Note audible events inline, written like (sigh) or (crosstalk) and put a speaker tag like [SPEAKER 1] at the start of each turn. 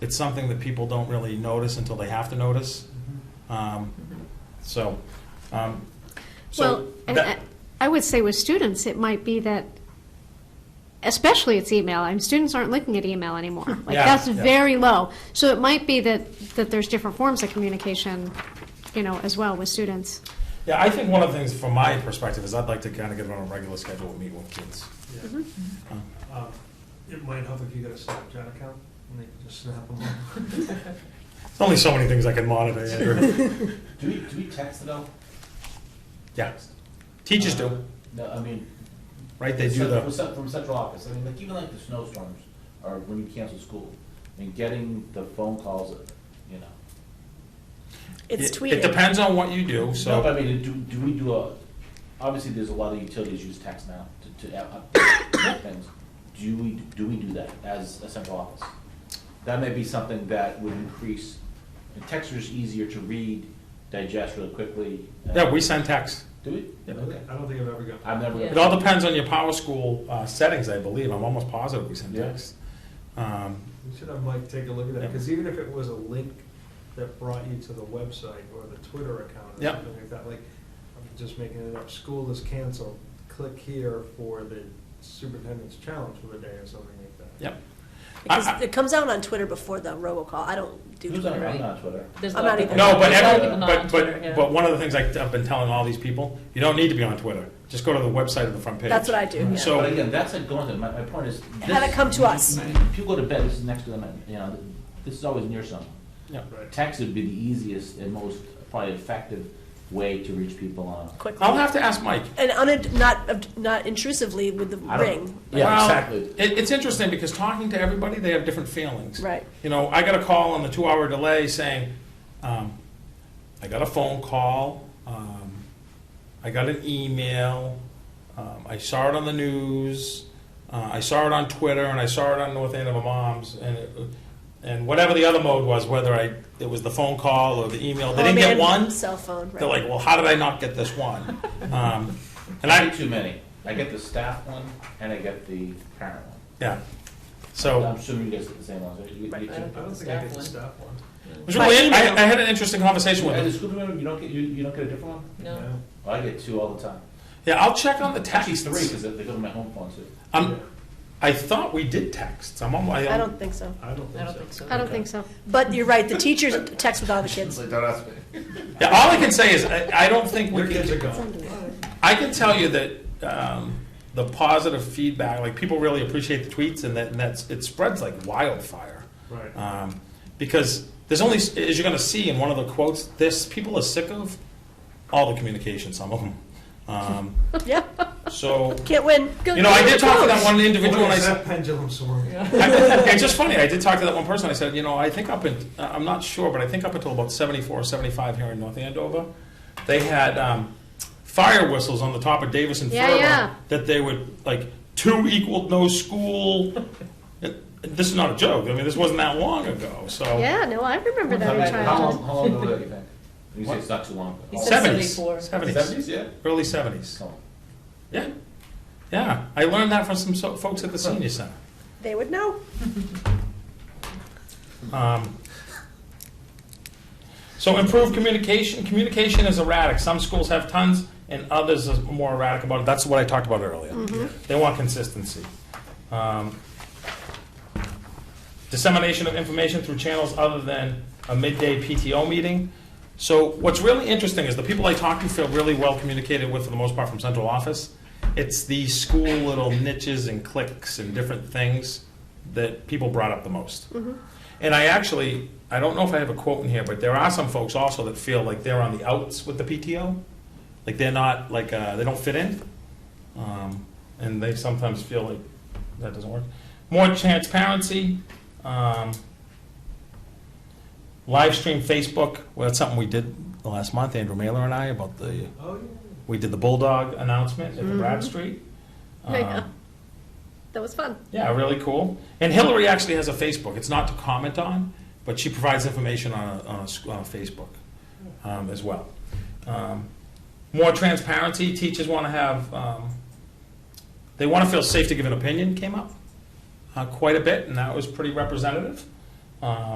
[SPEAKER 1] it's something that people don't really notice until they have to notice. Um, So, um,
[SPEAKER 2] Well,
[SPEAKER 1] so,
[SPEAKER 2] and I
[SPEAKER 1] that-
[SPEAKER 2] I would say with students, it might be that, especially it's email, and students aren't looking at email anymore.
[SPEAKER 1] (laughs)
[SPEAKER 2] Like,
[SPEAKER 1] Yeah,
[SPEAKER 2] that's
[SPEAKER 1] yeah.
[SPEAKER 2] very low. So it might be that, that there's different forms of communication, you know, as well with students.
[SPEAKER 1] yeah, I think one of the things from my perspective is I'd like to kind of get on a regular schedule and meet with kids.
[SPEAKER 3] Yeah. Um, It might help if you got a Snapchat account, and they can just snap them up.
[SPEAKER 1] There's only so many things I can monitor,
[SPEAKER 4] (laughs)
[SPEAKER 1] Andrew.
[SPEAKER 4] Do we, do we text it all?
[SPEAKER 1] Yeah, teachers do,
[SPEAKER 4] No, I mean.
[SPEAKER 1] right, they do
[SPEAKER 4] cent- From
[SPEAKER 1] the,
[SPEAKER 4] cent- from central office, I mean, like, even like the snowstorms, or when you cancel school, I mean, getting the phone calls, you know.
[SPEAKER 1] it
[SPEAKER 5] It's
[SPEAKER 1] it
[SPEAKER 5] tweeted.
[SPEAKER 1] depends on what you do,
[SPEAKER 4] No,
[SPEAKER 1] so,
[SPEAKER 4] but I mean, do, do we do a, obviously, there's a lot of utilities use text now to, to up- (coughs) update things. Do we, do we do that as a central office? That may be something that would increase, and text is easier to read, digest really quickly. uh,
[SPEAKER 1] yeah, we send texts.
[SPEAKER 4] Do we?
[SPEAKER 1] Yeah.
[SPEAKER 4] Okay.
[SPEAKER 3] I don't think I've ever got.
[SPEAKER 4] I've never.
[SPEAKER 5] Yeah.
[SPEAKER 1] It all depends on your power school uh, settings, I believe, I'm almost positive we send
[SPEAKER 4] Yeah.
[SPEAKER 1] texts. Um,
[SPEAKER 3] We should have Mike take a look at that,
[SPEAKER 1] Yep.
[SPEAKER 3] because even if it was a link that brought you to the website or the Twitter account or
[SPEAKER 1] Yep.
[SPEAKER 3] something like that, like, I'm just making it up, school is canceled, click here for the superintendent's challenge for the day or something like that.
[SPEAKER 1] Yep. I- I-
[SPEAKER 5] Because it comes out on Twitter before the robocall. I don't do
[SPEAKER 4] Who's on,
[SPEAKER 5] Twitter.
[SPEAKER 4] I'm
[SPEAKER 6] right?
[SPEAKER 4] not on Twitter.
[SPEAKER 6] There's a
[SPEAKER 5] I'm
[SPEAKER 6] lot
[SPEAKER 5] not
[SPEAKER 6] of people-
[SPEAKER 5] either.
[SPEAKER 1] No, but
[SPEAKER 6] there's a lot of
[SPEAKER 1] every,
[SPEAKER 6] people not on
[SPEAKER 1] but,
[SPEAKER 6] Twitter,
[SPEAKER 1] but,
[SPEAKER 6] yeah.
[SPEAKER 1] but one of the things I- I've been telling all these people, you don't need to be on Twitter. Just go to the website of the front page.
[SPEAKER 5] That's what I do, yeah.
[SPEAKER 1] So-
[SPEAKER 4] But again, that's a going to, my, my point is.
[SPEAKER 5] Had it
[SPEAKER 4] this-
[SPEAKER 5] come to us.
[SPEAKER 4] If you go to bed, this is next to them, and, you know, this is always near someone.
[SPEAKER 1] Yeah.
[SPEAKER 4] Text would be the easiest and most probably effective way to reach people on.
[SPEAKER 5] Quickly.
[SPEAKER 1] I'll have to ask Mike.
[SPEAKER 5] And unint- not, not intrusively with the
[SPEAKER 4] I don't-
[SPEAKER 5] ring.
[SPEAKER 4] Yeah,
[SPEAKER 1] Well,
[SPEAKER 4] exactly.
[SPEAKER 1] It, it's interesting because talking to everybody, they have different feelings.
[SPEAKER 5] Right.
[SPEAKER 1] You know, I got a call on the two-hour delay saying, um, I got a phone call, um, I got an email, um, I saw it on the news, uh, I saw it on Twitter, and I saw it on North Andover Moms, and it, and whatever the other mode was, whether I it was the phone call or the email, they
[SPEAKER 5] Oh,
[SPEAKER 1] didn't get
[SPEAKER 5] man,
[SPEAKER 1] one.
[SPEAKER 5] Cell phone, right.
[SPEAKER 1] They're like, well, how did I not get this
[SPEAKER 5] (laughs)
[SPEAKER 1] one? Um, and
[SPEAKER 4] I
[SPEAKER 1] I,
[SPEAKER 4] get too many. I get the staff one and I get the parent one.
[SPEAKER 1] yeah. So.
[SPEAKER 4] I'm assuming you guys get the same ones. right? You- you
[SPEAKER 5] Right.
[SPEAKER 4] too?
[SPEAKER 3] I don't think I could stop one.
[SPEAKER 1] It was really,
[SPEAKER 5] By
[SPEAKER 1] I,
[SPEAKER 5] email.
[SPEAKER 1] I had an interesting conversation with
[SPEAKER 4] As a
[SPEAKER 1] him.
[SPEAKER 4] school member, you don't get, you, you don't get a different one?
[SPEAKER 6] No.
[SPEAKER 3] No.
[SPEAKER 4] Well, I get two all the time.
[SPEAKER 1] Yeah, I'll check on the
[SPEAKER 4] Actually,
[SPEAKER 1] texts.
[SPEAKER 4] three, because they they go to my home phone too.
[SPEAKER 1] Um, I thought we did texts. I'm on my.
[SPEAKER 5] I don't think so.
[SPEAKER 3] I don't
[SPEAKER 6] I
[SPEAKER 3] think
[SPEAKER 6] don't
[SPEAKER 3] so.
[SPEAKER 6] think so.
[SPEAKER 2] I don't think so.
[SPEAKER 5] But you're right, the teachers text with all
[SPEAKER 1] (laughs)
[SPEAKER 5] the kids.
[SPEAKER 4] don't ask me.
[SPEAKER 1] Yeah, all I can say is I, I don't think we
[SPEAKER 3] Your kids are
[SPEAKER 1] can.
[SPEAKER 3] gone.
[SPEAKER 1] I can tell you that um, the positive feedback, like people really appreciate the tweets, and that and that's it spreads like wildfire.
[SPEAKER 3] Right.
[SPEAKER 1] Um, because there's only, as you're going to see in one of the quotes, this people are sick of all the communication. Some of them. Um,
[SPEAKER 5] Yeah,
[SPEAKER 1] so
[SPEAKER 5] can't win.
[SPEAKER 1] you know, I did talk to that one individual, and I
[SPEAKER 3] What is
[SPEAKER 1] said.
[SPEAKER 3] that pendulum swing?
[SPEAKER 1] I- (laughs) it's just funny. I did talk to that one person. I said, you know, I think up in, uh, I'm not sure, but I think up until about 74 or 75 here in North Andover, they had um, fire whistles on the top of Davis and
[SPEAKER 2] Yeah,
[SPEAKER 1] Furlong
[SPEAKER 2] yeah.
[SPEAKER 1] that they would, like, two equaled no school. It- this is not a joke. I mean, this wasn't that long ago. So,
[SPEAKER 2] Yeah, no, I remember that in
[SPEAKER 4] How long,
[SPEAKER 2] childhood.
[SPEAKER 4] how long ago do you think? You say it's not too long
[SPEAKER 6] He
[SPEAKER 4] ago.
[SPEAKER 6] said
[SPEAKER 1] 70s.
[SPEAKER 6] 74.
[SPEAKER 1] 70s.
[SPEAKER 4] Seventies, yeah.
[SPEAKER 1] Early 70s. Yeah. Yeah. I learned that from some so- folks at the senior center.
[SPEAKER 5] They would know.
[SPEAKER 1] Um, So improve communication. Communication is erratic. Some schools have tons and others are more erratic about it. That's what I talked about earlier. They want consistency. Um, Dissemination of information through channels other than a midday PTO meeting. So what's really interesting is the people I talk to feel really well communicated with for the most part from central office. It's the school little niches and cliques and different things that people brought up the most. And I actually, I don't know if I have a quote in here, but there are some folks also that feel like they're on the outs with the PTO. Like they're not, like, uh, they don't fit in. Um, and they sometimes feel like that doesn't work. More transparency. Um, live stream Facebook. Well, that's something we did last month, Andrew Mailer and I, about the,
[SPEAKER 3] Oh, yeah.
[SPEAKER 1] we did the Bulldog announcement at the Bradstreet.
[SPEAKER 2] I know.
[SPEAKER 1] Um,
[SPEAKER 2] That was fun.
[SPEAKER 1] yeah, really cool. And Hillary actually has a Facebook. It's not to comment on, but she provides information on, a, on, a, sc- on Facebook um, as well. Um, more transparency. Teachers want to have, um, they want to feel safe to give an opinion, came up uh, quite a bit, and that was pretty representative. Um,